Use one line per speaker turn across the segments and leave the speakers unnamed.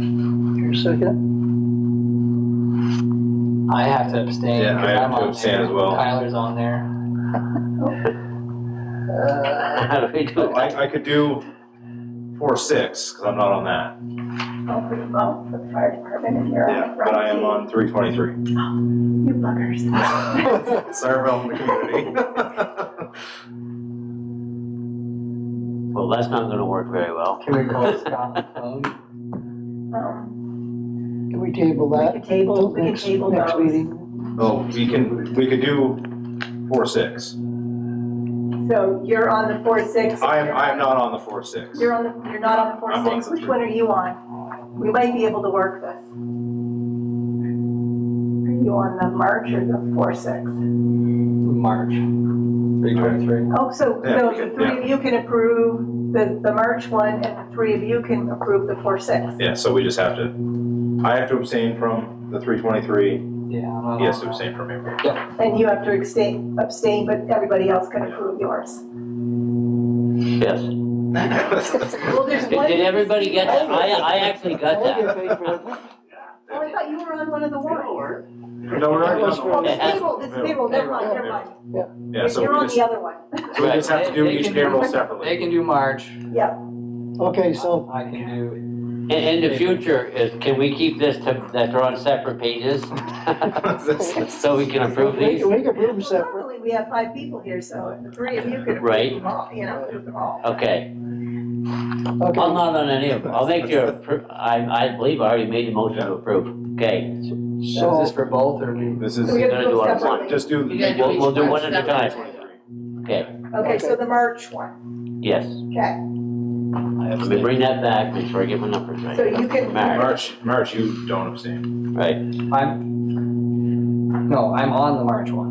Your second?
I have to abstain.
Yeah,
'cause
I
I'm
have to
on
abstain
there.
as well.
Tyler's on there.
Uh,
How do we do
Oh,
it?
I, I could do four, six, because I'm not on that.
Oh, for the, oh, for the fire department and you're
Yeah,
on.
but I am on three twenty-three.
You buggers.
Sorry about the community.
Well, that's not gonna work very well.
Can we call Scott on the phone?
Um,
Can we table
We
that?
could table, we could
Next,
table
next
those.
meeting?
Oh, we can, we could do four, six.
So you're on the four, six.
I am, I am not on the four, six.
You're on the, you're not on the four,
I'm on
six.
the
Which
three.
one are you on? We might be able to work this. Are you on the March or the four, six?
March. Three twenty-three.
Oh, so,
Yeah,
so
we
the
could-
three of you can approve the, the March one and the three of you can approve the four, six.
Yeah, so we just have to, I have to abstain from the three twenty-three,
Yeah. I'm not
he has
on
to
that.
abstain from April.
And you have to abstain, abstain, but everybody else can approve yours.
Yes.
Well, there's
Did
one.
did everybody get that? I, I actually got that.
Oh, I thought you were on one of the warrants.
No, we're not
Those
on
Oh,
the
this
warrant.
payroll, this payroll, never mind, never mind.
Yeah, so
You're
we
on
just,
the other one.
so we just have to do
They- they
each
can do-
payroll
They
separately.
can do March.
Okay, so
I can do,
In, in the future, is, can we keep this to, that they're on separate pages? So we can approve
we,
these?
we can approve
Well,
them separate.
Luckily, we have five people here, so the three of you could
Right.
approve them all, you know, approve them all.
Okay, I'm
Okay,
Um, not on any of them. I'll make your, appro- I, I believe I already made the motion to approve. Okay,
so is
so,
this for both or do?
This
So we
is,
have
We're
to
gonna do
go
one at a time.
separately.
just do.
You gotta do
We'll-
each
we'll do one at a
separately.
okay,
Okay, so the March one,
yes.
okay.
Let me bring that back, make sure I get my numbers right.
So you can-
March,
March, March, you don't abstain,
right.
I'm, no, I'm on the March one.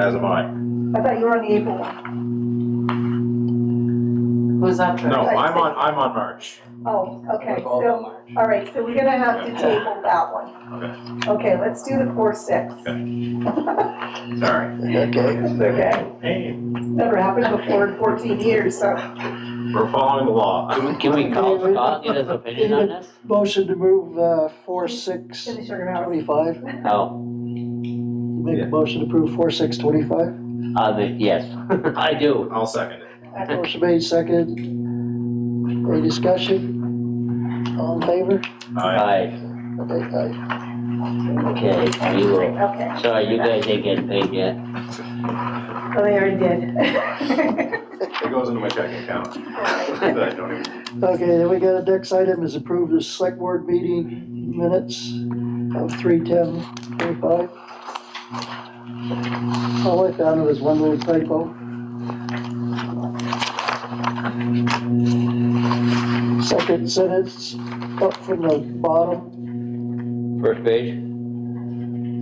as am I.
I thought you were on the April one.
Who's up for it?
No, I'm on, I'm on March.
Oh,
We're
okay,
both on
so,
March.
all right, so we're gonna have to table that one.
Okay,
Okay, let's do the four, six.
sorry.
okay.
It's okay.
Hey,
Never happened before in fourteen years, so.
we're following the law.
Can we call Scott, get his opinion on this?
Motion to move, uh, four, six,
Finish your mouth.
twenty-five.
No,
Make
Yeah.
a motion to approve four, six,
I
twenty-five.
mean, uh, yes, I do.
I'll second it.
Motion made, second. Any discussion? All in favor?
I,
Aye,
Okay, aye.
okay, we will.
Okay.
Sorry, you guys ain't getting paid yet.
Oh, they already did.
it goes into my checking account. That I don't even-
Okay, then we got a next item is approve the select board meeting minutes of three ten twenty-five. All I found was one little typo. Second sentence up from the bottom,
First page,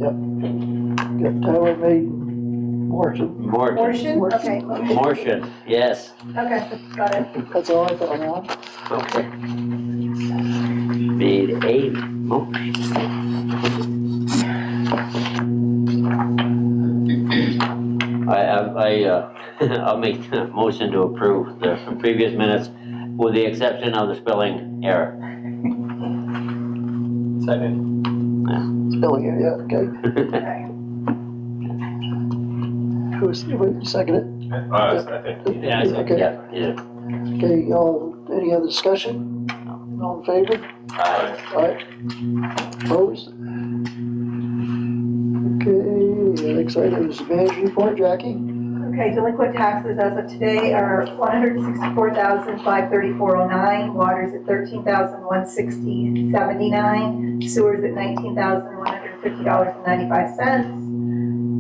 got Tyler made Morton,
Morton,
Portion, okay,
Morton, yes.
okay, got it.
that's all I found on.
Okay. Made a motion. I, I, I, uh, I'll make the motion to approve the previous minutes with the exception of the spelling error.
Second.
Spelling it, yeah, okay.
Okay.
Who's, wait, second
Uh, I think.
it?
Yeah, I second.
Okay.
Yeah, yeah.
Okay, all, any other discussion? All in favor?
I-
Alright, opposed? Okay, the next item is the manager's report, Jackie.
Okay, delinquent taxes as of today are one hundred sixty-four thousand, five thirty-four oh nine, water's at thirteen thousand, one sixty, seventy-nine, sewer's at nineteen thousand, one hundred fifty dollars and ninety-five cents.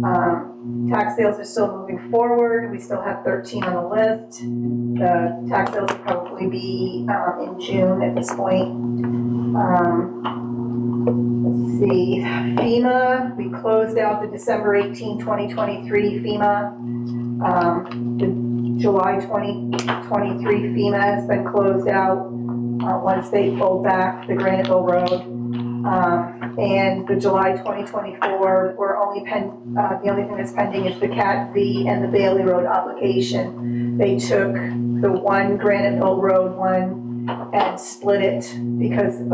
Um, tax sales are still moving forward, we still have thirteen on the list. The tax sales will probably be, um, in June at this point. Um, let's see, FEMA, we closed out the December 18, 2023 FEMA. Um, the July 2023 FEMA has been closed out, uh, once they pulled back the Graniteville Road. Um, and the July 2024, we're only pen, uh, the only thing that's pending is the Cat Z and the Bailey Road obligation. They took the one Graniteville Road one and split it because of